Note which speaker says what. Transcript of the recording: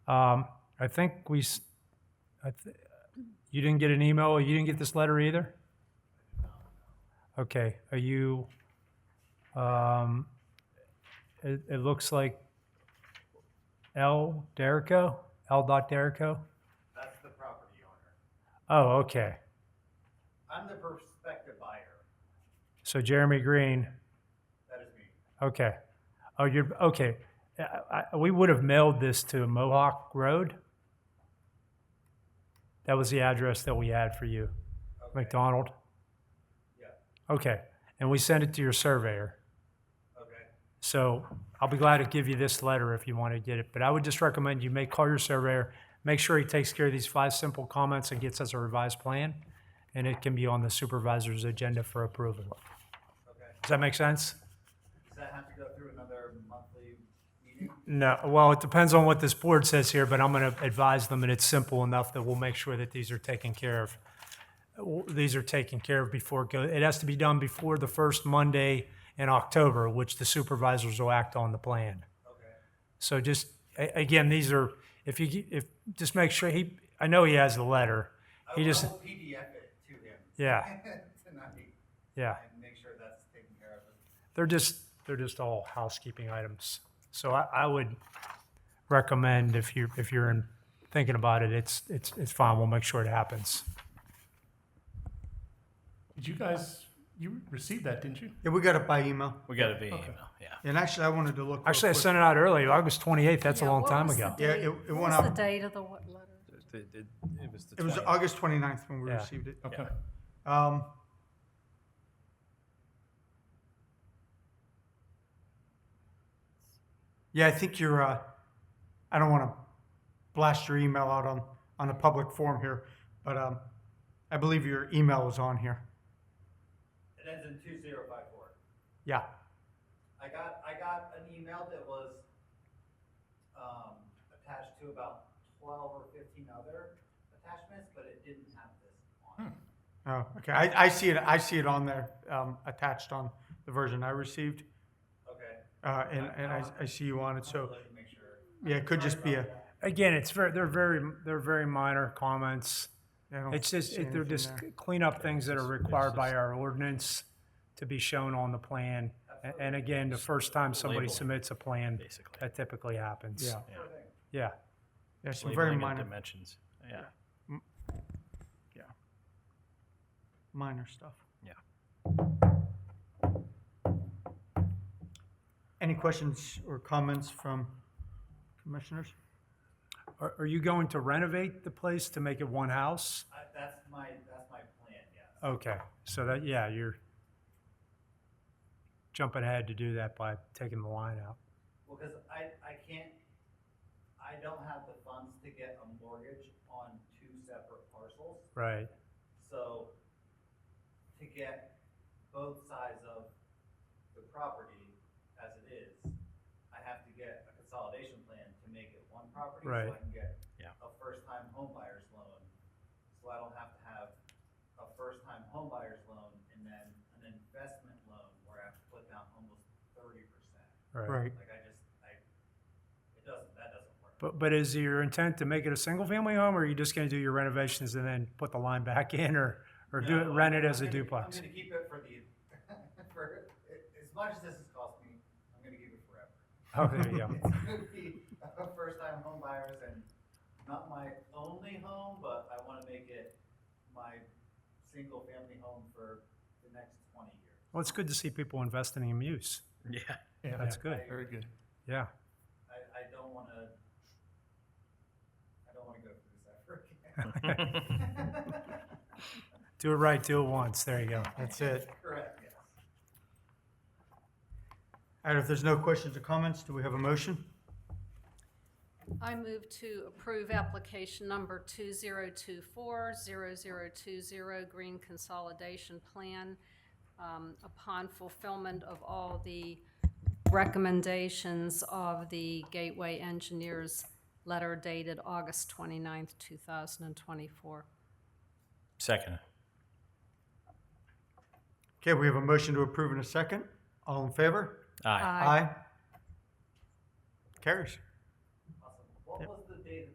Speaker 1: Um, I think we, s- I th- you didn't get an email, you didn't get this letter either? Okay, are you, um, it, it looks like L. Derico, L. Dot Derico?
Speaker 2: That's the property owner.
Speaker 1: Oh, okay.
Speaker 2: I'm the prospective buyer.
Speaker 1: So Jeremy Green,
Speaker 2: That is me.
Speaker 1: okay. Oh, you're, okay. Uh, I, I, we would have mailed this to Mohawk Road. That was the address that we had for you,
Speaker 2: Okay.
Speaker 1: McDonald.
Speaker 2: Yeah,
Speaker 1: Okay, and we sent it to your surveyor.
Speaker 2: okay.
Speaker 1: So I'll be glad to give you this letter if you want to get it, but I would just recommend you make, call your surveyor, make sure he takes care of these five simple comments and gets us a revised plan, and it can be on the supervisor's agenda for approval.
Speaker 2: Okay.
Speaker 1: Does that make sense?
Speaker 2: Does that have to go through another monthly meeting?
Speaker 1: No, well, it depends on what this board says here, but I'm going to advise them, and it's simple enough that we'll make sure that these are taken care of. W- These are taken care of before, it go- it has to be done before the first Monday in October, which the supervisors will act on the plan.
Speaker 2: Okay.
Speaker 1: So just, a- again, these are, if you, ge- if, just make sure he, I know he has the letter.
Speaker 2: I
Speaker 1: He
Speaker 2: will-
Speaker 1: just,
Speaker 2: I will PDF it to him.
Speaker 1: Yeah.
Speaker 2: Tonight
Speaker 1: yeah,
Speaker 2: and make sure that's taken care of.
Speaker 1: they're just, they're just all housekeeping items. So I, I would recommend if you, if you're in, thinking about it, it's, it's, it's fine. We'll make sure it happens.
Speaker 3: Did you guys, you received that, didn't you?
Speaker 4: Yeah, we got it by email.
Speaker 5: We got to be email, yeah.
Speaker 4: And actually, I wanted to look. real
Speaker 1: Actually, I
Speaker 4: quick.
Speaker 1: sent it out early, August 28th. That's a
Speaker 6: Yeah,
Speaker 1: long
Speaker 6: what
Speaker 1: time
Speaker 6: was
Speaker 1: ago.
Speaker 6: the
Speaker 4: Yeah,
Speaker 6: date?
Speaker 4: it- it
Speaker 6: What
Speaker 4: went
Speaker 6: was
Speaker 4: out-
Speaker 6: the date of the what letter?
Speaker 5: It, it, it was the.
Speaker 4: It was
Speaker 5: 20th.
Speaker 4: August 29th when we
Speaker 1: Yeah.
Speaker 4: received it.
Speaker 3: Okay.
Speaker 4: Um, yeah, I think you're. Uh, I don't want to blast your email out on on a public forum here, but um, I believe your email was on here.
Speaker 2: It ends in two zero five four.
Speaker 1: Yeah.
Speaker 2: I got, I got an email that was, um, attached to about twelve or fifteen other attachments, but it didn't have this on
Speaker 1: Hmm.
Speaker 2: it.
Speaker 4: Oh, okay. I, I see it. I see it on there, um, attached on the version I received,
Speaker 2: Okay.
Speaker 4: uh, and and I, I see you on it. So
Speaker 2: Let me make sure.
Speaker 4: yeah, it could just be a.
Speaker 1: Again, it's very, they're very, they're very minor comments.
Speaker 4: I don't
Speaker 1: It's just,
Speaker 4: see
Speaker 1: it- they're
Speaker 4: anything
Speaker 1: just
Speaker 4: there.
Speaker 1: cleanup things that are required by our ordinance to be shown on the plan. A- And again, the first time somebody
Speaker 5: Labeling,
Speaker 1: submits a plan,
Speaker 5: basically.
Speaker 1: that typically happens.
Speaker 4: Yeah.
Speaker 5: Yeah.
Speaker 1: Yeah,
Speaker 4: Yeah, some
Speaker 5: Labeling
Speaker 4: very
Speaker 5: and
Speaker 4: minor,
Speaker 5: Dimensions, yeah.
Speaker 4: minor stuff.
Speaker 5: Yeah.
Speaker 4: Any questions or comments from commissioners?
Speaker 1: Are, are you going to renovate the place to make it one house?
Speaker 2: I, that's my, that's my plan, yes.
Speaker 1: Okay, so that, yeah, you're jumping ahead to do that by taking the line out.
Speaker 2: Well, cause I, I can't, I don't have the funds to get a mortgage on two separate parcels.
Speaker 1: Right,
Speaker 2: So to get both sides of the property as it is, I have to get a consolidation plan to make it one property.
Speaker 1: Right.
Speaker 2: So I can get
Speaker 5: Yeah.
Speaker 2: a first-time home buyer's loan. So I don't have to have a first-time home buyer's loan and then an investment loan where I have to put down almost thirty percent.
Speaker 1: right.
Speaker 4: Right.
Speaker 2: Like I just, I, it doesn't, that doesn't work.
Speaker 1: But, but is your intent to make it a single-family home, or are you just gonna do your renovations and then put the line back in, or, or do it,
Speaker 2: No,
Speaker 1: rent
Speaker 2: I'm-
Speaker 1: it as a
Speaker 2: I'm gonna-
Speaker 1: duplex?
Speaker 2: I'm gonna keep it for the, for, as much as this has cost me, I'm gonna keep it forever.
Speaker 1: Oh, there you go.
Speaker 2: It's gonna be first-time home buyers and not my only home, but I wanna make it my single-family home for the next twenty years.
Speaker 1: Well, it's good to see people investing in use.
Speaker 5: Yeah.
Speaker 3: Yeah,
Speaker 1: That's good,
Speaker 3: Very good.
Speaker 1: yeah.
Speaker 2: I, I don't wanna, I don't wanna go through this ever again.
Speaker 1: Do it right, do it once, there you go.
Speaker 4: That's it.
Speaker 2: Correct, yes.
Speaker 4: All right, if there's no questions or comments, do we have a motion?
Speaker 6: I move to approve application number 2024-0020 Green Consolidation Plan um, upon fulfillment of all the recommendations of the Gateway Engineers letter dated August 29th, 2024.
Speaker 5: Second,
Speaker 4: Okay, we have a motion to approve in a second. All in favor?
Speaker 5: aye.
Speaker 4: Aye. Carries.